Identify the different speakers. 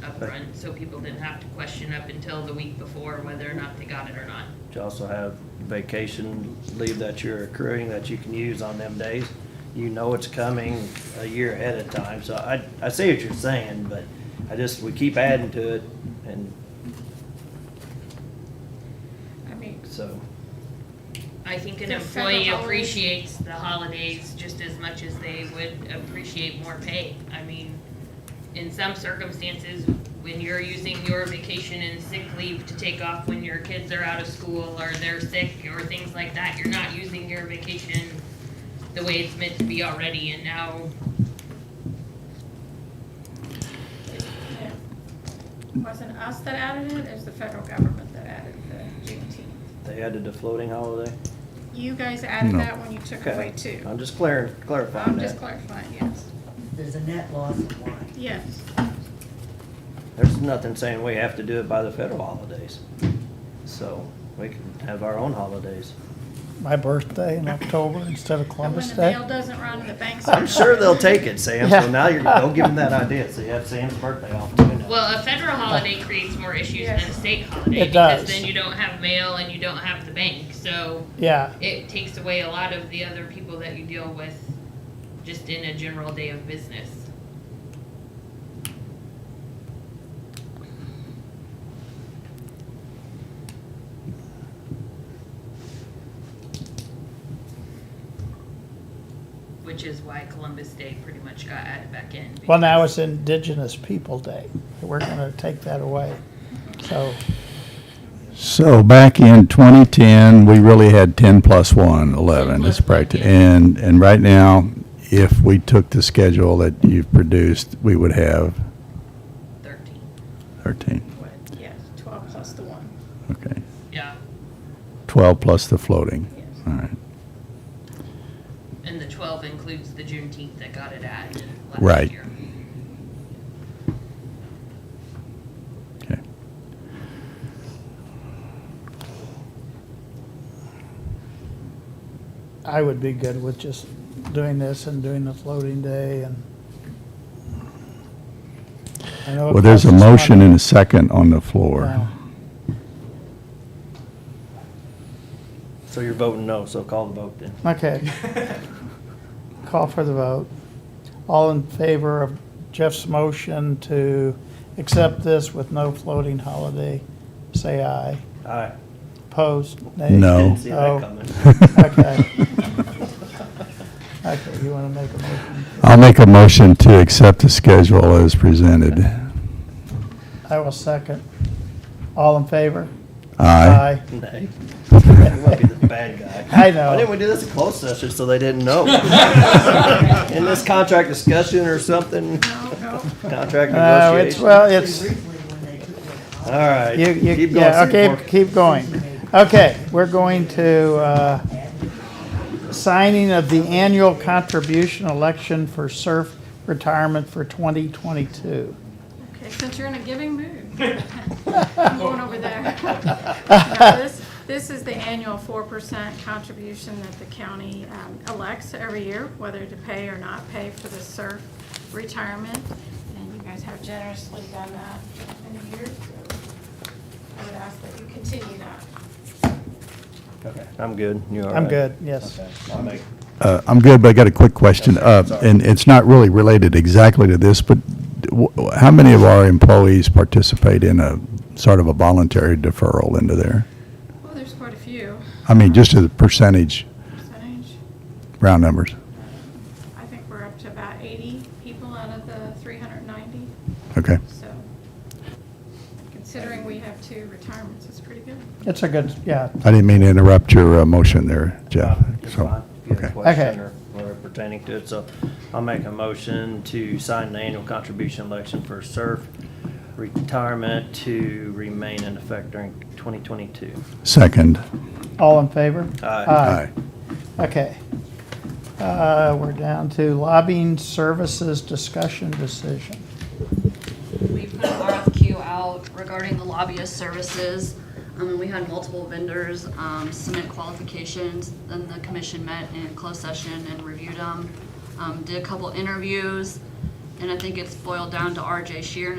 Speaker 1: upfront, so people didn't have to question up until the week before whether or not they got it or not.
Speaker 2: You also have vacation leave that you're accruing that you can use on them days. You know it's coming a year ahead of time, so I, I see what you're saying, but I just, we keep adding to it, and
Speaker 3: I mean,
Speaker 2: so,
Speaker 1: I think an
Speaker 3: There's several
Speaker 1: employee
Speaker 3: holidays.
Speaker 1: appreciates the holidays just as much as they would appreciate more pay. I mean, in some circumstances, when you're using your vacation and sick leave to take off when your kids are out of school or they're sick or things like that, you're not using your vacation the way it's meant to be already, and now
Speaker 3: it wasn't us that added it, it was the federal government that added the Juneteenth.
Speaker 2: they added the floating holiday.
Speaker 3: You guys added
Speaker 4: No.
Speaker 3: that when you took away
Speaker 2: Okay,
Speaker 3: two.
Speaker 2: I'm just clar- clarifying
Speaker 3: I'm just
Speaker 2: that.
Speaker 3: clarifying, yes,
Speaker 5: There's a net loss of one.
Speaker 3: yes.
Speaker 2: There's nothing saying we have to do it by the federal holidays. So, we can have our own holidays.
Speaker 6: my birthday in October instead of
Speaker 3: But when
Speaker 6: Columbus
Speaker 3: the
Speaker 6: Day.
Speaker 3: mail doesn't run, the banks.
Speaker 2: I'm
Speaker 3: aren't
Speaker 2: sure they'll
Speaker 3: open.
Speaker 2: take it, Sam, so now you're, don't give them that idea, so you have Sam's birthday off too now.
Speaker 1: Well, a federal holiday creates more issues than a state holiday
Speaker 6: It
Speaker 1: because
Speaker 6: does.
Speaker 1: then you don't have mail and you don't have the bank. So
Speaker 6: Yeah,
Speaker 1: it takes away a lot of the other people that you deal with just in a general day of business. Which is why Columbus Day pretty much got added back in.
Speaker 6: well, now
Speaker 1: because-
Speaker 6: it's Indigenous People Day. We're gonna take that away. So,
Speaker 4: So back in 2010, we really had 10 plus 1, 11, it's practi- and, and right now, if we took the schedule that you've produced, we would have
Speaker 1: 13.
Speaker 4: 13,
Speaker 3: What, Yes, twelve plus the one,
Speaker 4: okay.
Speaker 1: Yeah.
Speaker 4: 12 plus the floating,
Speaker 3: yes.
Speaker 4: all right.
Speaker 1: And the twelve includes the Juneteenth that got it added last
Speaker 4: Right.
Speaker 1: year.
Speaker 4: Okay.
Speaker 6: I would be good with just doing this and doing the floating day and. I know it
Speaker 4: Well, there's a
Speaker 6: costs us
Speaker 4: motion
Speaker 6: money.
Speaker 4: and a second on the floor.
Speaker 6: Well,
Speaker 2: So you're voting no, so call the vote then.
Speaker 6: Okay. Call for the vote. All in favor of Jeff's motion to accept this with no floating holiday, say aye.
Speaker 2: All right.
Speaker 6: Opposed? Nay?
Speaker 4: No.
Speaker 2: Didn't see
Speaker 6: Oh.
Speaker 2: that coming.
Speaker 6: Okay. Okay, you want to make a motion?
Speaker 4: I'll make a motion to accept the schedule as presented.
Speaker 6: I will second. All in favor?
Speaker 4: Aye.
Speaker 2: Nay. You might be the bad guy.
Speaker 6: I know.
Speaker 2: Why didn't we do this in closed session so they didn't know? In this contract discussion or something,
Speaker 3: No, no,
Speaker 2: contract
Speaker 6: No, Uh, it's,
Speaker 2: negotiation? All
Speaker 6: well, it's,
Speaker 5: Briefly, when they took it off,
Speaker 2: right.
Speaker 6: you, you,
Speaker 2: Keep going,
Speaker 6: yeah, okay,
Speaker 2: Seymour.
Speaker 6: keep going. Okay, we're going to, uh, signing of the annual contribution election for SURF retirement for 2022.
Speaker 3: okay, since you're in a giving mood. I'm going over there. No, This this is the annual four percent contribution that the county um, elects every year, whether to pay or not pay for the SURF retirement. And you guys have generously done that in the year, so I would ask that you continue that.
Speaker 2: Okay, I'm good. You all right?
Speaker 6: I'm good, yes.
Speaker 2: Okay, I'll make,
Speaker 4: Uh, I'm good, but I got a quick question, Uh, and it's not really related exactly to this, but w- w- how many of our employees participate in a, sort of a voluntary deferral into there?
Speaker 3: Well, there's quite a few
Speaker 4: I mean, just as a percentage,
Speaker 3: percentage.
Speaker 4: round numbers.
Speaker 3: I think we're up to about eighty people out of the three hundred and ninety,
Speaker 4: Okay,
Speaker 3: so considering we have two retirements, it's pretty good.
Speaker 6: It's a good, yeah,
Speaker 4: I didn't mean to interrupt your uh, motion there, Jeff.
Speaker 2: it's
Speaker 4: So,
Speaker 2: fine. Uh, If you have a
Speaker 4: Okay,
Speaker 2: question
Speaker 6: Okay.
Speaker 2: or whatever pertaining to it, so I'll make a motion to sign the annual contribution election for SURF retirement to remain in effect during 2022.
Speaker 4: second.
Speaker 6: all in favor?
Speaker 2: Aye.
Speaker 6: Okay. Uh, We're down to lobbying services discussion decision.
Speaker 7: We put an RFQ out regarding the lobbyist services. Um, we had multiple vendors, um, submit qualifications, then the commission met in closed session and reviewed them. Um, did a couple interviews, and I think it's boiled down to RJ Sheeran